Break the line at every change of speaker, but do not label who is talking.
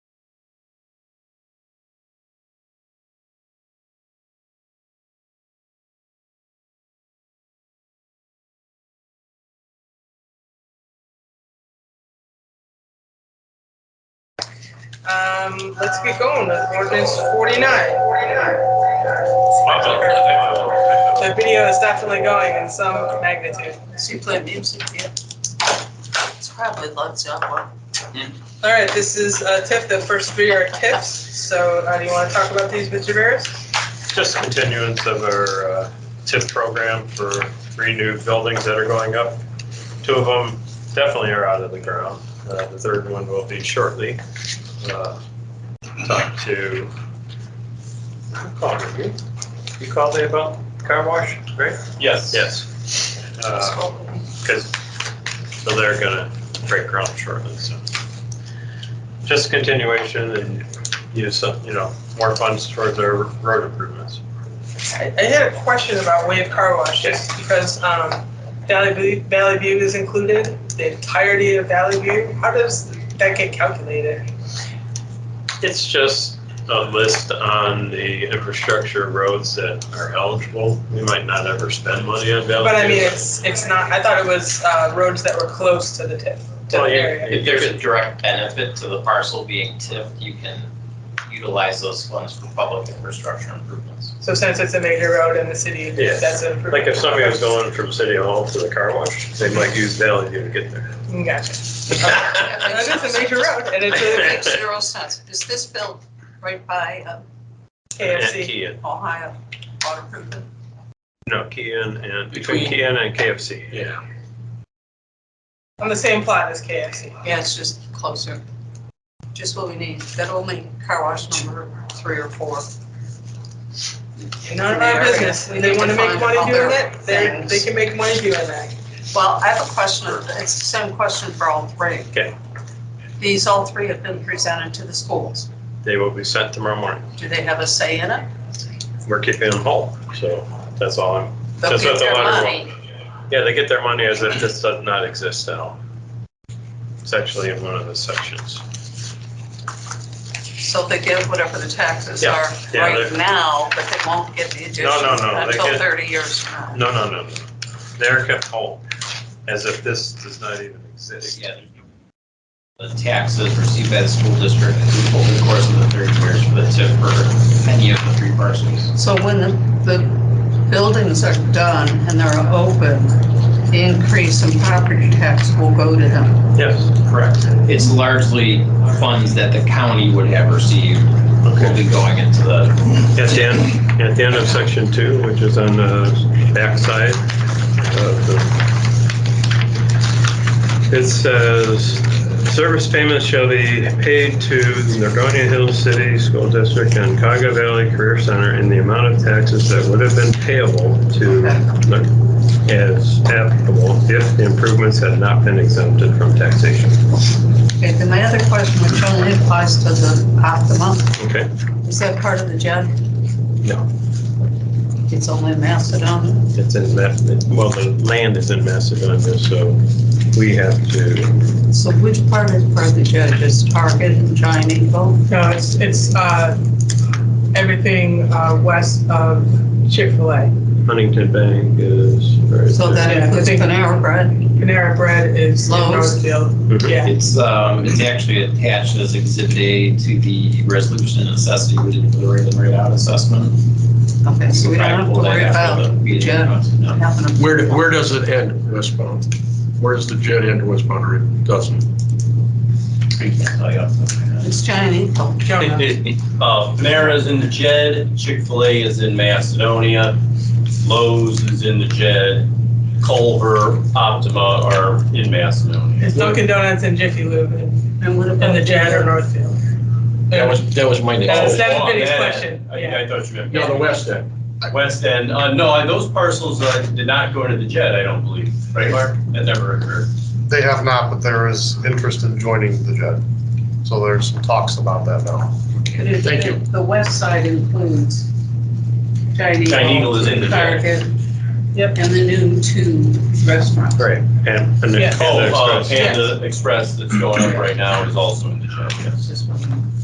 Um, let's get going. Ordinance 49. The video is definitely going in some magnitude.
She played music, yeah. It's probably loves that one.
All right, this is uh, TIF. The first three are TIFs. So uh, do you want to talk about these, Mr. Barris?
Just continuance of our uh, TIP program for three new buildings that are going up. Two of them definitely are out of the ground. Uh, The third one will be shortly. Uh, Talked to, who called me? You called me about car wash, right?
Yes.
Yes. Because, so they're gonna break ground shortly, so. Just continuation and use, of, you know, more funds towards our road improvements.
I, I had a question about Wave Car Wash just because um, Valley, View, Valley View is included, the entirety of Valley View. How does that get calculated?
It's just a list on the infrastructure roads that are eligible. We might not ever spend money on Valley.
But I mean,
View.
it's it's not. I thought it was uh, roads that were close to the TIF. To
Well,
the
yeah,
area.
If there's a direct benefit to the parcel being tipped, you can utilize those funds for public infrastructure improvements.
So since it's a major road in the city,
Yeah.
that's a.
Like if somebody was going from City Hall to the car wash, they might use Valley View to get there.
Gotcha. And That is a major road and it's a
Makes zero sense. Is this built right by uh,
And
KFC.
Kean,
Ohio Water Improvement?
no, Kean and, between Kean and KFC. Yeah.
On the same plot as KFC.
Yeah, it's just closer. Just what we need. That'll make car wash number three or four.
None of our business.
We
If They
need
want to
to
make
find
money doing
other
that, they, they
things.
can make money doing that.
Well, I have a question. It's the same question for all three.
Okay.
These, all three have been presented to the schools.
They will be sent tomorrow morning.
Do they have a say in it?
We're keeping them whole, so that's all I'm, that's
They'll
what the
get their
letter
money.
will. Yeah, they get their money as if this does not exist at all. It's actually in one of the sections.
So they get whatever the taxes
Yeah,
are
yeah,
right
they're-
now, but they won't get the addition
no, no, they
until
get-
thirty years from now.
No, no, no, no. They're kept whole, as if this does not even exist.
Yeah. The taxes received by the school district is over the course of the thirty years for the tip for any of the three parcels.
So when the, the buildings are done and they're open, the increase in property tax will go to them.
Yes.
Correct. It's largely funds that the county would have received will be going into the
At the end, at the end of section two, which is on the backside of the, it says, service payments shall be paid to the Nordonia Hills City School District and Caga Valley Career Center in the amount of taxes that would have been payable to, as applicable, if the improvements had not been exempted from taxation.
Okay, then my other question, which only applies to the Optima,
Okay.
is that part of the job?
No.
It's only Macedon?
It's in that, well, the land is in Macedonia, so we have to,
So which part is part of the job? Is Target and Giant Eagle?
No, it's, it's, uh, everything, uh, west of Chick-fil-A.
Huntington Bank is. where is
So
it?
that
Yeah, I
includes
think-
Panera Bread?
Panera Bread is in
Lowe's.
Northfield.
Mhm.
Yeah.
It's, um, it's actually attached as exhibit A to the resolution of necessity, we didn't do the rate and rate out assessment.
Okay, so we don't have to
We'll
worry
have
about
the meeting
Jen.
notes, no.
having a
Where, where does it end, westbound? Where does the jet end westbound or it doesn't?
We can tell you off the top of my head.
It's giant eagle.
Jonah.
Uh, Panera is in the Jed, Chick-fil-A is in Macedonia, Lowe's is in the Jed, Culver, Optima are in Macedonia.
It's Dunkin' Donuts and Jiffy Lube and
And what about?
and the Jan or Northfield.
That was, that was my
That was-
next.
that was
Oh,
Vinny's
that
question,
end. I-
yeah.
I thought you meant
No, the west end.
West End. Uh, No, and those parcels uh, did not go to the Jed, I don't believe. Right, Mark? That never occurred.
They have not, but there is interest in joining the JED. So there's some talks about that now.
But it-
Thank you.
The west side includes giant eagle.
Giant Eagle is in the jet.
Target.
Yep.
And the new two restaurants.
Right, and, and the
Yeah.
Panda
Oh, uh,
Express.
Panda Express that's going up right now is also in the Jed, yes.
Just one.